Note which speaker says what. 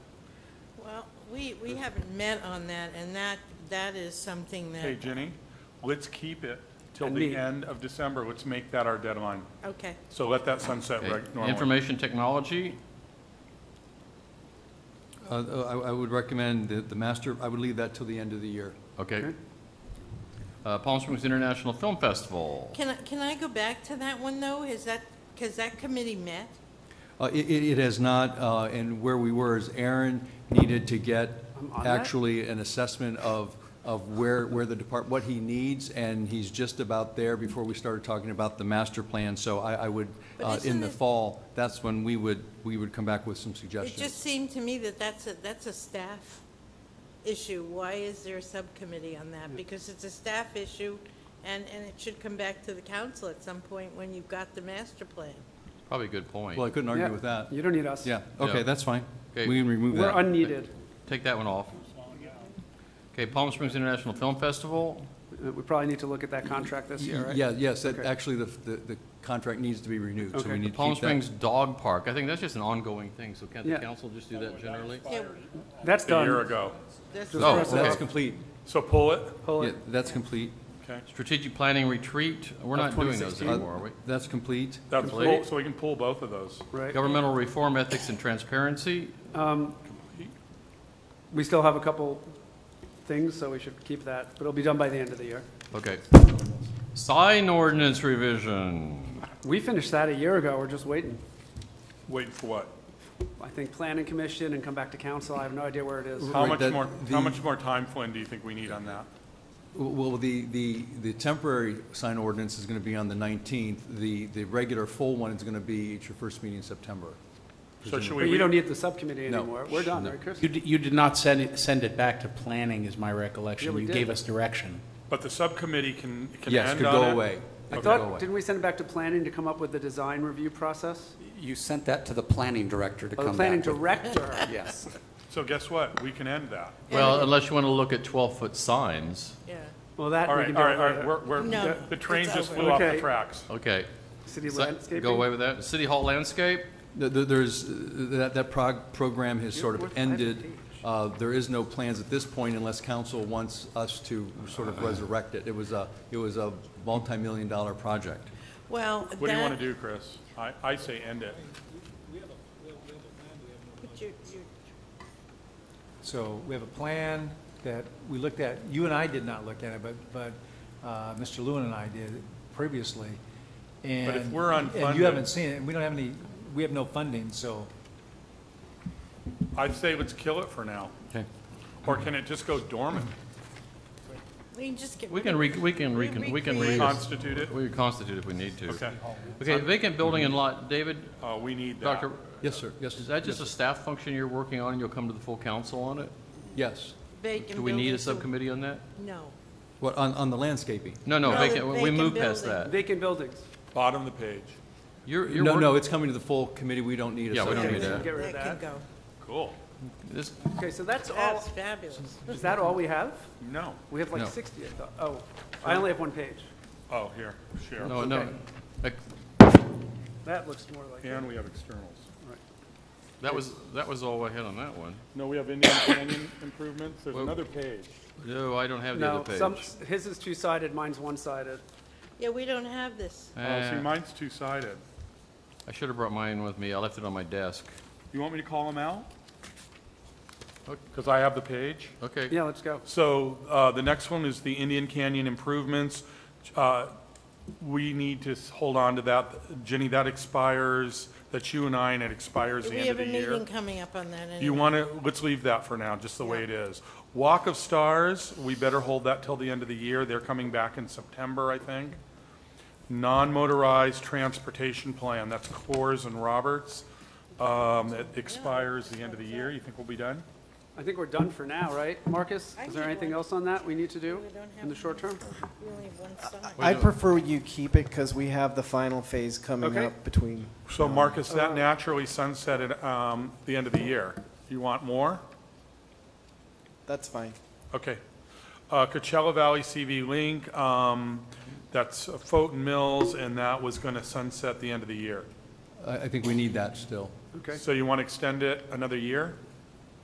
Speaker 1: we, we haven't met on that, and that, that is something
Speaker 2: Hey,
Speaker 1: that,
Speaker 2: Jenny, let's keep it till
Speaker 3: And
Speaker 2: the
Speaker 3: me.
Speaker 2: end of December. Let's make that our deadline.
Speaker 1: okay.
Speaker 2: So let that sunset
Speaker 4: Okay.
Speaker 2: reg- normally.
Speaker 4: Information technology,
Speaker 5: Uh, I I would recommend the the master, I would leave that till the end of the year.
Speaker 4: okay.
Speaker 3: Okay.
Speaker 4: Uh, Palm Springs International Film Festival,
Speaker 1: Can I, can I go back to that one, though? Is that, because that committee met?
Speaker 5: Uh, It it- it has not, uh, and where we were is Aaron needed to get
Speaker 3: I'm on that?
Speaker 5: actually an assessment of of where where the depart, what he needs, and he's just about there before we started talking about the master plan. So I I would,
Speaker 1: But
Speaker 5: uh,
Speaker 1: isn't
Speaker 5: in the
Speaker 1: it-
Speaker 5: fall, that's when we would, we would come back with some
Speaker 1: It just
Speaker 5: suggestions.
Speaker 1: seemed to me that that's a, that's a staff issue. Why is there a subcommittee on that? Because it's a staff issue, and, and it should come back to the council at some point when you've got the master plan.
Speaker 4: probably a good point.
Speaker 5: Well, I couldn't
Speaker 3: Yeah,
Speaker 5: argue with that.
Speaker 3: You don't need us.
Speaker 5: Yeah,
Speaker 4: Yeah.
Speaker 5: okay, that's fine.
Speaker 4: Okay.
Speaker 5: We can remove
Speaker 3: We're
Speaker 5: that.
Speaker 3: unneeded.
Speaker 4: Take that one off. Okay, Palm Springs International Film Festival,
Speaker 3: Uh, We probably need to look at that contract this year, right?
Speaker 5: Yeah, yes, that-
Speaker 3: Okay.
Speaker 5: actually, the the the contract needs to be renewed, so
Speaker 3: Okay.
Speaker 5: we need to keep that.
Speaker 4: Palm Springs Dog Park, I think that's just an ongoing thing, so can't the
Speaker 3: Yeah.
Speaker 4: council just do that generally?
Speaker 1: Yeah,
Speaker 3: That's
Speaker 2: A year
Speaker 3: done.
Speaker 2: ago.
Speaker 1: that's-
Speaker 4: Oh,
Speaker 3: press
Speaker 5: That's
Speaker 4: okay.
Speaker 5: complete.
Speaker 2: So pull it,
Speaker 3: Pull
Speaker 5: Yeah,
Speaker 3: it.
Speaker 5: that's complete.
Speaker 2: okay?
Speaker 4: Strategic Planning Retreat, we're not doing those
Speaker 3: 2016.
Speaker 4: anymore, are we?
Speaker 5: That's complete.
Speaker 2: That's
Speaker 4: Complete.
Speaker 2: pull, so we can pull both of those.
Speaker 3: Right.
Speaker 4: Governmental Reform Ethics and Transparency,
Speaker 3: We still have a couple things, so we should keep that, but it'll be done by the end of the year.
Speaker 4: okay. Sign ordinance revision,
Speaker 3: We finished that a year ago, we're just waiting.
Speaker 2: Wait for what?
Speaker 3: I think planning commission and come back to council, I have no idea where it is.
Speaker 2: How
Speaker 5: Right,
Speaker 2: much
Speaker 5: that-
Speaker 2: more, how
Speaker 5: the-
Speaker 2: much more time, Flynn, do you think we need on that?
Speaker 5: Well, the, the, the temporary sign ordinance is going to be on the 19th. The, the regular full one is going to be at your first meeting in September.
Speaker 2: So should
Speaker 3: But you
Speaker 2: we,
Speaker 3: don't need the subcommittee
Speaker 5: No.
Speaker 3: anymore, we're done, right, Chris?
Speaker 6: You, d- you did not send it, send it back to planning, is my recollection.
Speaker 3: Yeah, we
Speaker 6: You
Speaker 3: did.
Speaker 6: gave us direction.
Speaker 2: but the subcommittee can, can
Speaker 5: Yes,
Speaker 2: end
Speaker 5: could
Speaker 2: on
Speaker 5: go
Speaker 2: it?
Speaker 5: away.
Speaker 3: I
Speaker 5: Could go
Speaker 3: thought,
Speaker 5: away.
Speaker 3: didn't we send it back to planning to come up with the design review process?
Speaker 7: You sent that to the planning director to
Speaker 3: Oh,
Speaker 7: come
Speaker 3: the
Speaker 7: back.
Speaker 3: planning
Speaker 7: with.
Speaker 3: director,
Speaker 7: Yes.
Speaker 2: So guess what? We can end that.
Speaker 4: well, unless you want to look at 12-foot signs,
Speaker 1: Yeah,
Speaker 3: well, that
Speaker 2: All
Speaker 3: we
Speaker 2: right,
Speaker 3: can do
Speaker 2: all right, all
Speaker 3: it
Speaker 2: right,
Speaker 3: later.
Speaker 2: we're, we're,
Speaker 1: No,
Speaker 2: the- the train
Speaker 1: it's
Speaker 2: just
Speaker 1: over.
Speaker 2: flew off the
Speaker 3: Okay.
Speaker 2: tracks.
Speaker 4: okay.
Speaker 3: City
Speaker 4: So- Go away
Speaker 3: landscaping,
Speaker 4: with that. City Hall Landscape,
Speaker 5: The- the- There's, that, that prog, program has
Speaker 3: You're
Speaker 5: sort of
Speaker 3: worth five
Speaker 5: ended.
Speaker 3: pages.
Speaker 5: Uh, There is no plans at this point unless council wants us to sort of resurrect it. It was a, it was a multi-million dollar project.
Speaker 1: well,
Speaker 2: What do you want
Speaker 1: that,
Speaker 2: to do, Chris? I, I say end it.
Speaker 1: but you- you-
Speaker 8: So we have a plan that we looked at, you and I did not look at it, but, but uh, Mr. Lewin and I did previously.
Speaker 2: if
Speaker 8: And-
Speaker 2: we're
Speaker 8: And you
Speaker 2: unfunded-
Speaker 8: haven't seen it, and we don't have any, we have no funding, so
Speaker 2: I'd say let's kill it for now.
Speaker 4: Okay.
Speaker 2: Or can it just go dormant,
Speaker 1: we can just get.
Speaker 4: we can, re- we can, recon- we can
Speaker 1: Recreate.
Speaker 4: re-
Speaker 2: constitute it?
Speaker 4: we can constitute if we need to.
Speaker 2: Okay,
Speaker 4: Okay, vacant building and lot, David,
Speaker 2: uh, we need that.
Speaker 4: Dr.,
Speaker 5: Yes, sir. Yes,
Speaker 4: is that just a staff function you're working on and you'll come to the full council on it?
Speaker 5: yes.
Speaker 1: vacant
Speaker 4: Do we need a
Speaker 1: buildings, so-
Speaker 4: subcommittee on that?
Speaker 1: No.
Speaker 5: What, on, on the landscaping?
Speaker 4: No, no,
Speaker 1: No,
Speaker 4: vacant,
Speaker 1: the
Speaker 4: we moved
Speaker 1: vacant
Speaker 4: past
Speaker 1: building.
Speaker 4: that.
Speaker 3: vacant buildings,
Speaker 2: Bottom of the page.
Speaker 4: You're, you're
Speaker 5: No,
Speaker 4: work-
Speaker 5: no, it's coming to the full committee. We don't need a
Speaker 4: Yeah, we don't
Speaker 5: subcommittee.
Speaker 4: need that.
Speaker 3: get rid of
Speaker 1: That can
Speaker 3: that.
Speaker 1: go.
Speaker 2: Cool.
Speaker 4: This,
Speaker 3: Okay, so that's all,
Speaker 1: That's fabulous.
Speaker 3: is that all we have?
Speaker 2: No.
Speaker 3: We have like
Speaker 5: No.
Speaker 3: 60, I thought. oh, I only have one page,
Speaker 2: Oh, here, share.
Speaker 4: no, no.
Speaker 3: Okay.
Speaker 4: Like,
Speaker 3: that looks more like it.
Speaker 2: And we have externals.
Speaker 4: That was, that was all I had on that one.
Speaker 2: No, we have Indian Canyon improvements. There's
Speaker 4: Well-
Speaker 2: another page.
Speaker 4: No, I don't have the
Speaker 3: No,
Speaker 4: other page.
Speaker 3: some, his is two-sided, mine's one-sided.
Speaker 1: Yeah, we don't have this.
Speaker 2: Oh, see,
Speaker 4: Uh,
Speaker 2: mine's two-sided.
Speaker 4: I should have brought mine with me. I left it on my desk.
Speaker 2: You want me to call them out?
Speaker 4: Ok.
Speaker 2: Because I have the page.
Speaker 4: Okay.
Speaker 3: Yeah, let's go.
Speaker 2: So uh, the next one is the Indian Canyon improvements. Uh, We need to s- hold on to that. Jenny, that expires, that's you and I, and it expires the
Speaker 1: We
Speaker 2: end of
Speaker 1: have
Speaker 2: the
Speaker 1: a
Speaker 2: year.
Speaker 1: meeting coming up on that
Speaker 2: You
Speaker 1: anyway.
Speaker 2: want to, let's leave that for now, just the way it is. Walk of Stars, we better hold that till the end of the year. They're coming back in September, I think. Non-motorized transportation plan, that's Coors and Roberts. Um, It expires the end of the year. You think we'll be done?
Speaker 3: I think we're done for now, right, Marcus?
Speaker 1: I
Speaker 3: Is there
Speaker 1: need
Speaker 3: anything
Speaker 1: one.
Speaker 3: else on that we need to do
Speaker 1: We don't have
Speaker 3: in the short term?
Speaker 1: We only have one side.
Speaker 9: I'd prefer you keep it because we have the final phase coming
Speaker 3: Okay.
Speaker 9: up between.
Speaker 2: So Marcus, that naturally sunsetted um, the end of the year. You want more?
Speaker 9: That's fine.
Speaker 2: Okay. Uh, Coachella Valley CV Link, um, that's Fulton Mills, and that was going to sunset the end of the year.
Speaker 5: I, I think we need that still.
Speaker 3: Okay,
Speaker 2: So you want to extend it another year?